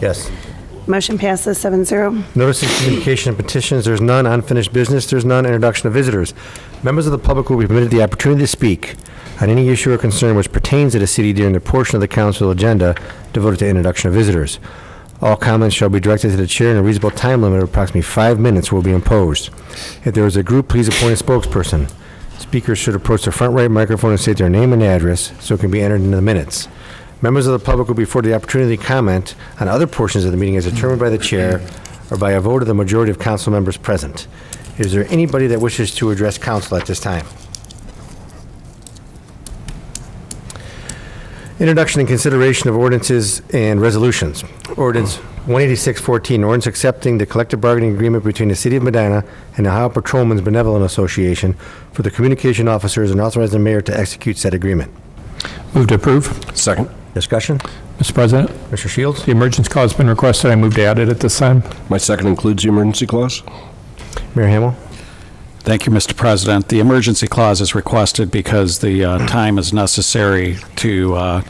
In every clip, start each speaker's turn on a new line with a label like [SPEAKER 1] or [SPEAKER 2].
[SPEAKER 1] Yes.
[SPEAKER 2] Motion passes seven zero.
[SPEAKER 1] Notices, communication, and petitions, there's none. Unfinished business, there's none. Introduction of visitors. Members of the public will be permitted the opportunity to speak on any issue or concern which pertains to the city during the portion of the council agenda devoted to introduction of visitors. All comments shall be directed to the chair, and a reasonable time limit of approximately five minutes will be imposed. If there is a group, please appoint a spokesperson. Speakers should approach the front right microphone and state their name and address so it can be entered into the minutes. Members of the public will be afforded the opportunity to comment on other portions of the meeting as determined by the chair or by a vote of the majority of council members present. Is there anybody that wishes to address council at this time? Introduction and consideration of ordinances and resolutions. Ordinance 18614, ordinance accepting the collective bargaining agreement between the City of Medina and the Ohio Patrolmen's Benevolent Association for the communication officers and authorizing the mayor to execute said agreement.
[SPEAKER 3] Move to approve.
[SPEAKER 4] Second.
[SPEAKER 1] Discussion?
[SPEAKER 3] Mr. President,
[SPEAKER 1] Mr. Shields?
[SPEAKER 3] the emergence clause has been requested. I move to add it at this time.
[SPEAKER 4] My second includes the emergency clause?
[SPEAKER 1] Mayor Hamel?
[SPEAKER 5] Thank you, Mr. President. The emergency clause is requested because the uh, time is necessary to uh,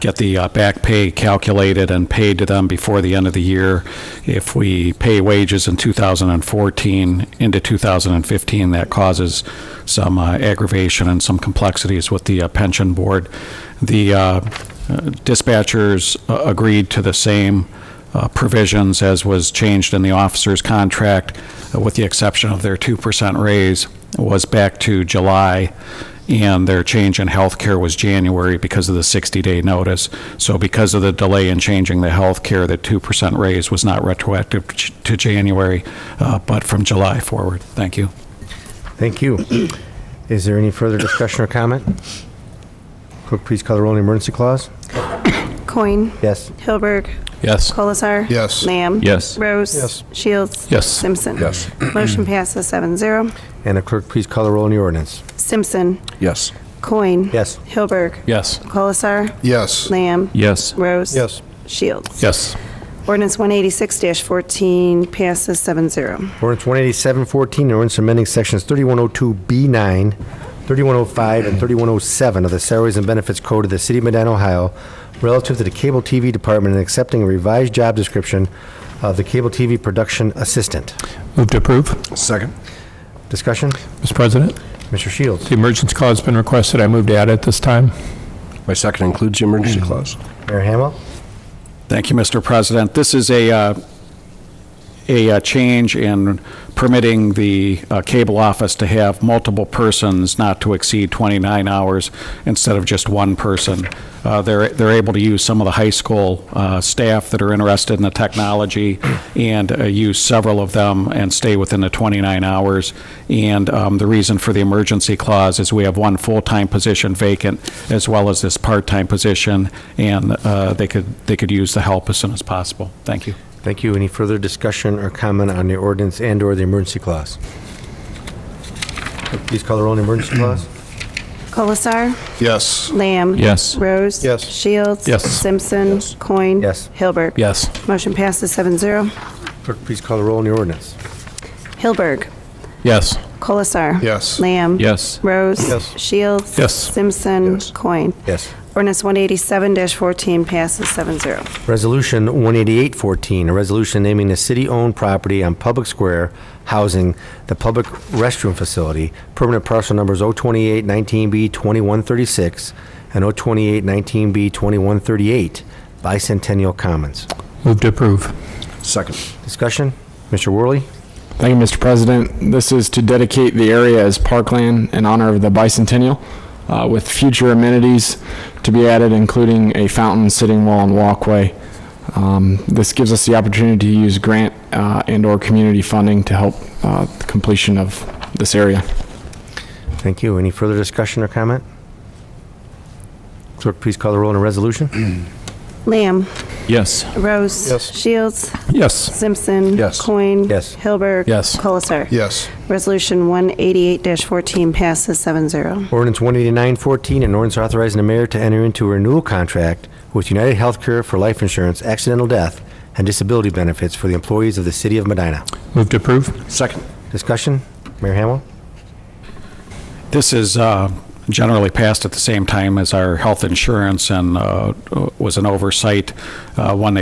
[SPEAKER 5] get the uh, back pay calculated and paid to them before the end of the year. If we pay wages in 2014 into 2015, that causes some uh, aggravation and some complexities with the uh, pension board. The uh, dispatchers uh, agreed to the same uh, provisions as was changed in the officer's contract, uh, with the exception of their 2% raise, was back to July, and their change in healthcare was January because of the 60-day notice. So because of the delay in changing the healthcare, the 2% raise was not retroactive to to January, uh, but from July forward. Thank you.
[SPEAKER 1] Thank you. Is there any further discussion or comment? Clerk, please call the roll on the emergency clause.
[SPEAKER 2] Coin.
[SPEAKER 1] Yes.
[SPEAKER 2] Hilberg.
[SPEAKER 3] Yes.
[SPEAKER 2] Colasar.
[SPEAKER 4] Yes.
[SPEAKER 2] Lamb.
[SPEAKER 3] Yes.
[SPEAKER 2] Rose. Shields.
[SPEAKER 3] Yes.
[SPEAKER 2] Simpson.
[SPEAKER 4] Yes.
[SPEAKER 2] Motion passes seven zero.
[SPEAKER 1] And the clerk, please call the roll on the ordinance.
[SPEAKER 2] Simpson.
[SPEAKER 4] Yes.
[SPEAKER 2] Coin.
[SPEAKER 1] Yes.
[SPEAKER 2] Hilberg.
[SPEAKER 3] Yes.
[SPEAKER 2] Colasar.
[SPEAKER 4] Yes.
[SPEAKER 2] Lamb.
[SPEAKER 3] Yes.
[SPEAKER 2] Rose.
[SPEAKER 1] Yes.
[SPEAKER 2] Shields.
[SPEAKER 3] Yes.
[SPEAKER 2] Ordinance 186-14 passes 7-0.
[SPEAKER 1] Ordinance 18714, ordinance amending sections 3102B9, 3105, and 3107 of the Salaries and Benefits Code of the City of Medina, Ohio, relative to the Cable TV Department and accepting a revised job description of the Cable TV Production Assistant.
[SPEAKER 3] Move to approve.
[SPEAKER 4] Second.
[SPEAKER 1] Discussion?
[SPEAKER 3] Mr. President,
[SPEAKER 1] Mr. Shields?
[SPEAKER 3] the emergence clause has been requested. I move to add it at this time.
[SPEAKER 4] My second includes the emergency clause?
[SPEAKER 1] Mayor Hamel?
[SPEAKER 5] Thank you, Mr. President. This is a, uh, a uh, change in permitting the uh, cable office to have multiple persons not to exceed 29 hours instead of just one person. Uh, They're, they're able to use some of the high school uh, staff that are interested in the technology and uh, use several of them and stay within the 29 hours. And um, the reason for the emergency clause is we have one full-time position vacant as well as this part-time position, and uh, they could, they could use the help as soon as possible. Thank you.
[SPEAKER 1] Thank you. Any further discussion or comment on the ordinance and/or the emergency clause? Please call the roll on the emergency clause.
[SPEAKER 2] Colasar.
[SPEAKER 4] Yes.
[SPEAKER 2] Lamb.
[SPEAKER 3] Yes.
[SPEAKER 2] Rose.
[SPEAKER 1] Yes.
[SPEAKER 2] Shields.
[SPEAKER 3] Yes.
[SPEAKER 2] Simpson. Coin.
[SPEAKER 1] Yes.
[SPEAKER 2] Hilberg.
[SPEAKER 3] Yes.
[SPEAKER 2] Motion passes 7-0.
[SPEAKER 1] Clerk, please call the roll on the ordinance.
[SPEAKER 2] Hilberg.
[SPEAKER 3] Yes.
[SPEAKER 2] Colasar.
[SPEAKER 4] Yes.
[SPEAKER 2] Lamb.
[SPEAKER 3] Yes.
[SPEAKER 2] Rose.
[SPEAKER 1] Yes.
[SPEAKER 2] Shields.
[SPEAKER 3] Yes.
[SPEAKER 2] Simpson.
[SPEAKER 4] Yes.
[SPEAKER 2] Coin.
[SPEAKER 1] Yes.
[SPEAKER 2] Ordinance 187-14 passes 7-0.
[SPEAKER 1] Resolution 18814, a resolution naming the city-owned property on Public Square housing the public restroom facility, permanent parcel numbers 02819B2136 and 02819B2138, Bicentennial Commons.
[SPEAKER 3] Move to approve.
[SPEAKER 4] Second.
[SPEAKER 1] Discussion? Mr. Worley?
[SPEAKER 6] Thank you, Mr. President. This is to dedicate the area as parkland in honor of the bicentennial, uh, with future amenities to be added, including a fountain, sitting wall, and walkway. Um, This gives us the opportunity to use grant uh, and/or community funding to help uh, the completion of this area.
[SPEAKER 1] Thank you. Any further discussion or comment? Clerk, please call the roll on the resolution.
[SPEAKER 2] Lamb.
[SPEAKER 3] Yes.
[SPEAKER 2] Rose.
[SPEAKER 1] Yes.
[SPEAKER 2] Shields.
[SPEAKER 3] Yes.
[SPEAKER 2] Simpson.
[SPEAKER 4] Yes.
[SPEAKER 2] Coin.
[SPEAKER 1] Yes.
[SPEAKER 2] Hilberg.
[SPEAKER 3] Yes.
[SPEAKER 2] Colasar.
[SPEAKER 4] Yes.
[SPEAKER 2] Resolution 188-14 passes 7-0.
[SPEAKER 1] Ordinance 18914, an ordinance authorizing the mayor to enter into a renewal contract with United Healthcare for life insurance, accidental death, and disability benefits for the employees of the city of Medina.
[SPEAKER 3] Move to approve.
[SPEAKER 4] Second.
[SPEAKER 1] Discussion? Mayor Hamel?
[SPEAKER 5] This is uh, generally passed at the same time as our health insurance and uh, was an oversight uh, when they